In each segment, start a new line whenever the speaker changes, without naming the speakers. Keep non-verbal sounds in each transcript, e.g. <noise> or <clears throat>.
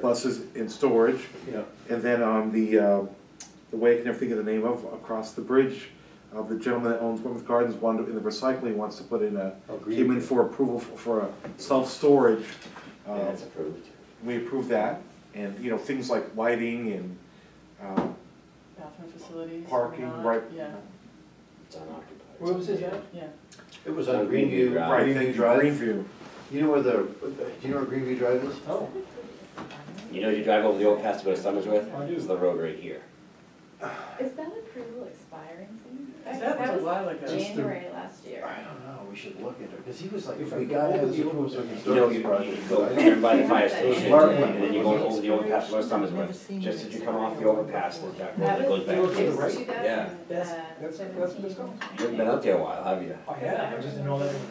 buses in storage.
Yeah.
And then on the, uh, the way I can never think of the name of, across the bridge, uh, the gentleman that owns Plymouth Gardens, one, in the recycling, wants to put in a,
Oh, green.
came in for approval for- for a self-storage. uh,
That's approved.
We approved that, and, you know, things like lighting and, uh,
Bathroom facilities. or
parking,
not,
right?
Yeah,
It's unoccupied.
Where was it at?
yeah.
It was on
On Greenview
Greenview.
Drive.
Right, thank you, Greenview.
You know where the, do you know where Greenview Drive is? Oh.
You know, you drive over the old pass to go to Summersworth?
I do.
It's the road right here.
Is that approval expiring soon?
That was a while ago.
January last year.
I don't know, we should look at it, because he was like,
If
we
we
got
got
it,
it,
he
it
was
was
like.
a
You know, you you go turn by the fire station and then you go over the old pass to go to Summersworth. Just as you come off the overpass, there's that road that goes
That
back.
was, it
to-
was
right?
two
Yeah.
thousand,
That's-
uh,
that's- that's what's
seventeen.
going
You haven't been out there a while, have you?
Oh, yeah, I just didn't know that. was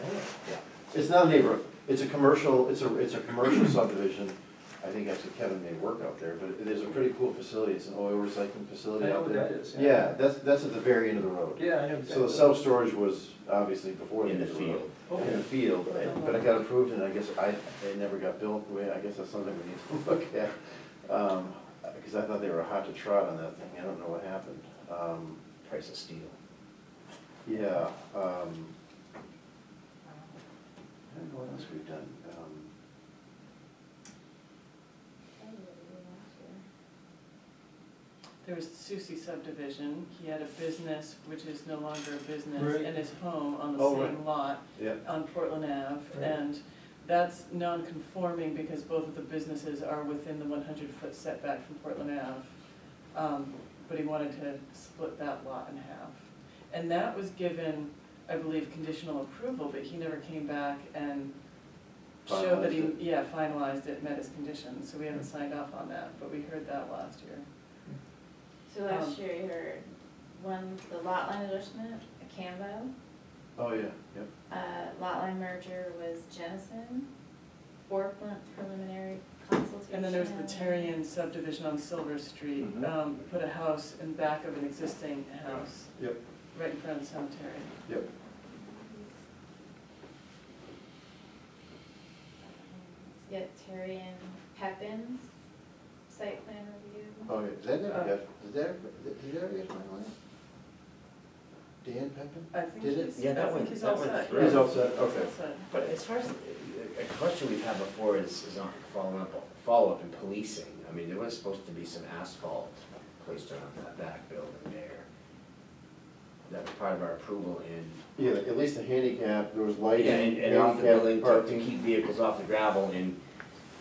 there.
It's not a neighborhood, it's a commercial, it's a, it's a
<clears throat>
commercial subdivision. I think actually Kevin may work out there, but it is a pretty cool facility, it's an oil recycling facility
I know
out
what
there.
that is, yeah.
Yeah, that's, that's at the very end of the road.
Yeah, I know.
So the self-storage was obviously before.
In the
end of
field.
road. In the field, and- but it got approved, and I guess I, it never got built, Well, I guess that's something we need to <laughs> look at. Um, Because I thought they were hot to trot on that thing, I don't know what happened. Um,
Price of steel.
Yeah, um, I don't know what else we've done. Um,
There was Susi subdivision, he had a business which is no longer a business
Right.
and his home on the
Oh, right.
same lot
Yeah,
on Portland Ave.
Right.
And that's non-conforming because both of the businesses are within the one hundred foot setback from Portland Ave. Um, But he wanted to split that lot in half. And that was given, I believe, conditional approval, but he never came back and showed that he,
Finalized
yeah, finalized it, met his conditions. So we haven't signed off on that, but we heard that last year.
So last year you heard one, the lot line adjustment, a Cambo,
oh, yeah, yep.
uh, lot line merger was Jenison, four pl- preliminary consultation.
And then there was the Terrian subdivision on Silver Street,
Mhm.
um, put a house in back of an existing house,
Yep,
right in front of the cemetery.
yep.
Yeah, Terrian Pepin's site plan review.
Oh, yeah, did that
Uh.
ever get, did that, ever- did that ever get finalized? Dan Pepin?
Uh.
I think
Did it?
he's,
Yeah, that
I think
went-
he's
that
all
went
set.
through. He's
yeah.
all
set,
He's
okay.
all set.
But as far as, a question we've had before is, is on following up, follow-up in policing. I mean, there was supposed to be some asphalt placed around that back building there. That was part of our approval in
Yeah, at least the handicap, there was lighting.
Yeah, and, and off the
handicap
building to, to
parking.
keep vehicles off the gravel and,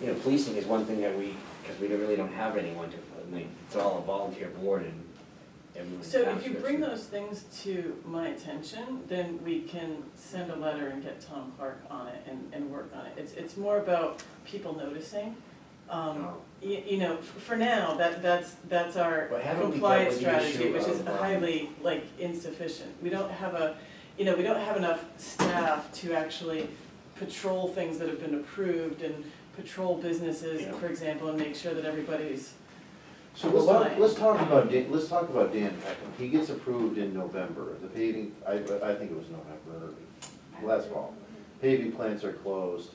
you know, policing is one thing that we, because we don't- really don't have anyone to, I mean, it's all a volunteer board and everyone's.
So if you
passionate.
bring those things to my attention, then we can send a letter and get Tom Clark on it and, and work on it. It's, it's more about people noticing. Um,
Oh.
you, you know, f- for now, that, that's, that's our
But haven't we dealt
compliance
with the
strategy,
issue
which is
of, um,
highly, like, insufficient. We don't have a, you know, we don't have enough staff to actually patrol things that have been approved and patrol businesses,
Yeah.
for example, and make sure that everybody's,
So let's
Fine.
talk, let's talk about Dan, let's talk about Dan Peckham. He gets approved in November. The paving, I, I think it was November, last fall. Paving plants are closed,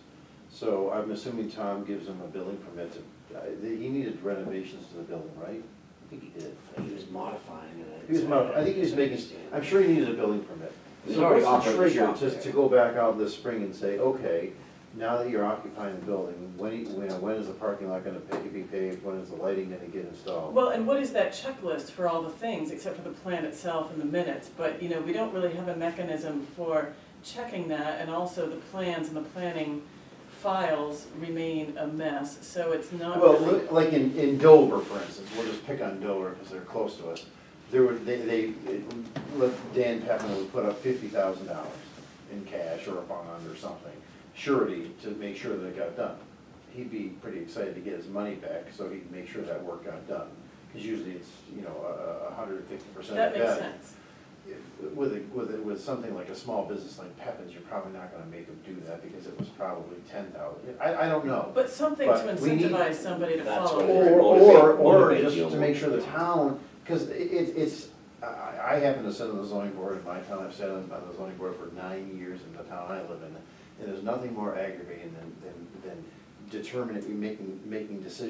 so I'm assuming Tom gives him a building permit to, uh, he needed renovations to the building, right? I think he did.
I think He was modifying it.
He was, mo- I think he was making, I'm sure he needed a building permit.
He's
So
already
what's the
operating
trigger
shop
to,
there.
to go back out this spring and say, okay, now that you're occupying the building, when, you know, when is the parking lot gonna pa- be paved? When is the lighting gonna get installed?
Well, and what is that checklist for all the things, except for the plan itself and the minutes, but, you know, we don't really have a mechanism for checking that, and also the plans and the planning files remain a mess, so it's not
Well,
really.
li- like in, in Dover, for instance, we'll just pick on Dover because they're close to us. There were, they, they, it- let- Dan Pepin would put up fifty thousand dollars in cash or a bond or something, surety to make sure that it got done. He'd be pretty excited to get his money back, so he'd make sure that work got done. Because usually it's, you know, a, a hundred and fifty percent of
That
value.
makes sense.
With, a- with, a- with something like a small business like Pepin's, you're probably not gonna make them do that because it was probably ten thousand. I, I don't know.
But something to
But we need-
incentivize somebody to
That's
follow.
what it
through.
is.
Or, or,
Motivate-
or
motivate
just
you
to
more.
make sure the town, because it, it- it's, I, I happen to sit on the zoning board in my town, I've sat on on the zoning board for nine years in the town I live in. And there's nothing more aggravating than, than, than determining, making, making decisions